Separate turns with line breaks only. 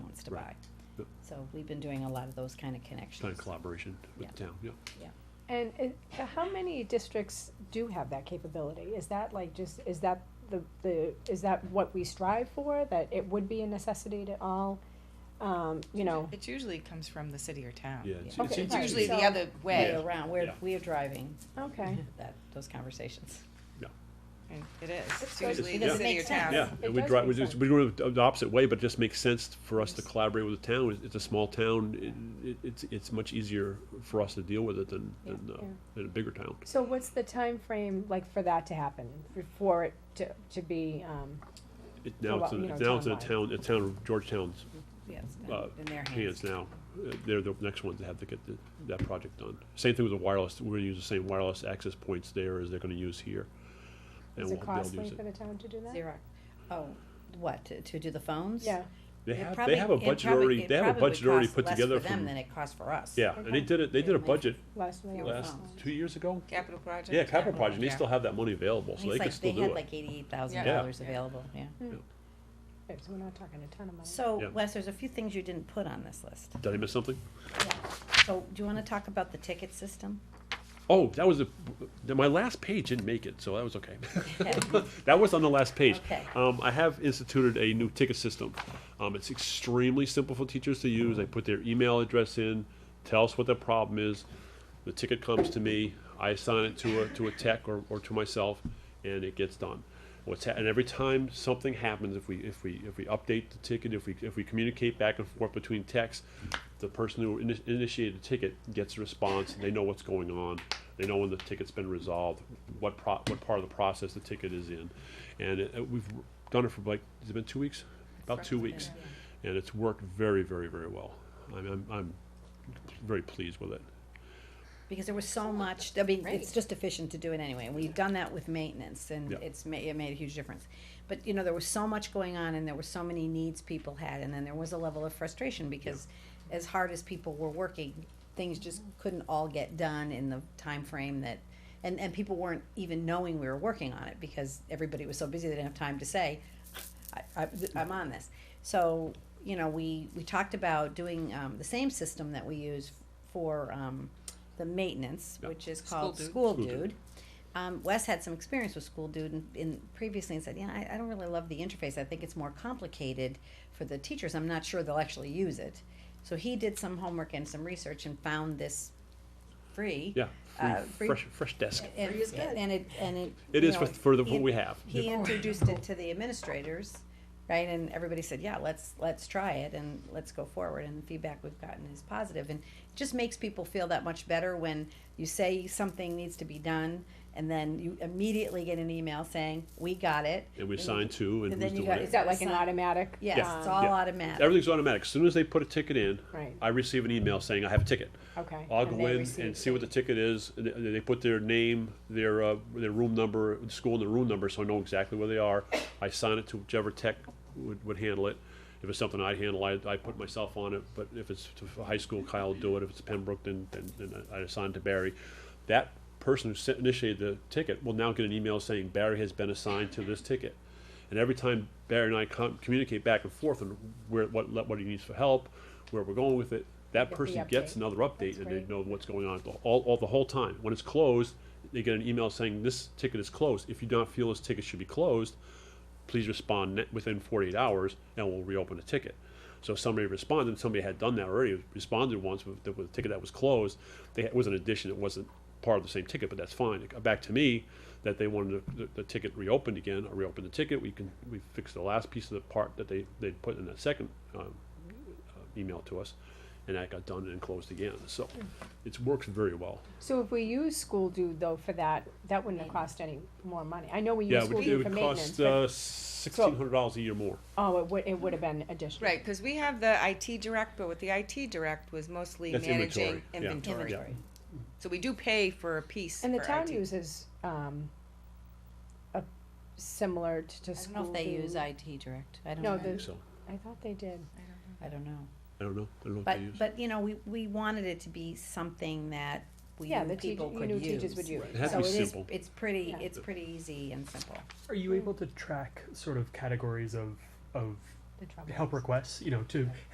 to
Right.
buy.
Yep.
So we've been doing a lot of those kind of
kind of
connections.
collaboration with the town, yeah.
And it, how many districts do have that capability? Is that like just, is that the, the, is that what we strive for? That it would be a necessity to all, um, you know?
It usually comes from the city or town.
Yeah, it's-
Okay,
it's-
It's
right,
usually the
so-
other
Way
way,
around, we're,
Yeah.
we are driving
Okay.
that, those conversations.
and it is, it's
does-
usually
because
the
it
city or
makes
town.
sense.
Yeah,
It
and we
does
drive,
make
we just, we go the opposite way, but it just makes sense for us to collaborate with the town. It's- It's a small town, it- it, it's, it's much easier for us to deal with it than,
Yeah.
than, uh,
Yeah.
than a bigger town.
So what's the time frame like for that to happen, for- for it to, to be, um,
It, now
what,
it's, in-
you know,
now it's in a
town-wide.
town, a town of Georgetown's
Yes,
Uh,
in their hands.
hands now. Uh, They're the next ones that have to get the- that project done. Same thing with the wireless, we're gonna use the same wireless access points there as they're gonna use here. and
is
we'll
it
they'll
costly
use
for the town to do that?
Xerox, oh, what, to- to do the phones?
Yeah,
They
It
have,
probably-
they have a
it
budget
probably-
already,
it
they have a
probably would
budget already
cost
put
less
together
for them
from,
than it costs for us.
yeah, and they
Okay.
did it, they did a
Yeah.
budget
last one.
Fewer
last,
phones.
two years ago?
Capital project.
Yeah, capital project, they
Yeah.
still have that money available,
It's
so they
like
could still
They
do
had
it.
like eighty-eight thousand
Yeah.
dollars available, yeah.
Okay, So we're not talking a ton of money.
So
Yeah.
Wes, there's a few things you didn't put on this list.
Did I miss something?
So do you wanna talk about the ticket system?
Oh, that was a, my last page didn't make it, so that was okay. That was on the last page.
Okay.
Um, I have instituted a new ticket system. Um, it's extremely simple for teachers to use. They put their email address in, tell us what the problem is. The ticket comes to me, I assign it to a, to a tech or, or to myself, and it gets done. What's, ha- and every time something happens, if we, if we, if we update the ticket, if we, if we communicate back and forth between techs, the person who ini- initiated the ticket gets a response, they know what's going on, they know when the ticket's been resolved, what pro, what part of the process the ticket is in. And it, uh, we've done it for like, has it been two weeks? About two weeks. And it's worked very, very, very well. I'm, I'm, I'm very pleased with it.
Because there was so much, I mean, it's
Great.
just efficient to do it anyway, and we've done that with maintenance, and
Yeah.
it's ma- it made a huge difference. But, you know, there was so much going on, and there were so many needs people had, and then there was a level of frustration, because as hard as people were working, things just couldn't all get done in the time frame that, and, and people weren't even knowing we were working on it, because everybody was so busy, they didn't have time to say, I, I, I'm on this. So, you know, we, we talked about doing, um, the same system that we use for, um, the maintenance,
Yeah.
which is called
Dude.
School
School Dude.
Dude. Um, Wes had some experience with School Dude in, in previously and said, yeah, I, I don't really love the interface. I think it's more complicated for the teachers. I'm not sure they'll actually use it. So he did some homework and some research and found this free.
Yeah,
Uh,
free,
free-
fresh, fresh desk.
And, and it, and it.
It
you
is
know,
for, for the, what
he-
we have.
he introduced it to the administrators, right, and everybody said, yeah, let's, let's try it and let's go forward, and the feedback we've gotten is positive, and it just makes people feel that much better when you say something needs to be done, and then you immediately get an email saying, we got it.
And we
you-
assign two
and
and who's
then you
doing
got-
Is
it.
that like an automatic?
Yes,
Yeah.
it's
um,
all
Yeah.
automatic,
Everything's automatic. As soon as they put a ticket in,
Right,
I receive an email saying I have a ticket.
okay.
I'll
and
go
they
in
receive
and see what the ticket is, and they, they put their name, their, uh, their room number, the school and the room number, so I know exactly where they are. I sign it to whichever tech would, would handle it. If it's something I handle, I, I put myself on it, but if it's to high school, Kyle will do it, if it's Pembroke, then, then, then I assign it to Barry. That person who sent- initiated the ticket will now get an email saying Barry has been assigned to this ticket. And every time Barry and I com- communicate back and forth on where, what, le- what he needs for help, where we're going with it, that
the
person gets
update.
another update
That's
and they
great.
know what's going on the- all, all the whole time. When it's closed, they get an email saying this ticket is closed. If you don't feel this ticket should be closed, please respond ne- within 48 hours and we'll reopen the ticket. So somebody responded, somebody had done that already, responded once with, the- with a ticket that was closed. They, it was an addition, it wasn't part of the same ticket, but that's fine. It got back to me that they wanted the, the, the ticket reopened again. I reopened the ticket. We can we fixed the last piece of the part that they, they put in that second um, uh, email to us, and that got done and closed again. So it works very well.
So if we use school do though for that, that wouldn't have cost any more money. I know we
Yeah,
use
it
school
would, it
do for
would
maintenance,
cost
but,
uh, $1,600 a year more.
oh, it would, it would have been additional.
Right, because we have the IT direct, but with the IT direct was mostly
That's
managing
inventory, yeah.
inventory.
inventory.
So we do pay for a piece
And the
for
town
IT.
uses, um, a, similar to, to
I don't
school
know if they
do.
use IT direct, I don't
No,
know,
the-
So
I thought they did.
I don't know.
I don't know. I don't know what
But,
they use.
but, you know, we, we wanted it to be something that we
Yeah,
knew
the teacher,
people
you
could
knew
use.
teachers would use.
It has
So
to
it
be
is,
simple.
it's pretty,
Yeah.
it's pretty easy and simple.
Are you able to track sort of categories of of
The trouble
help
is-
requests? You know, to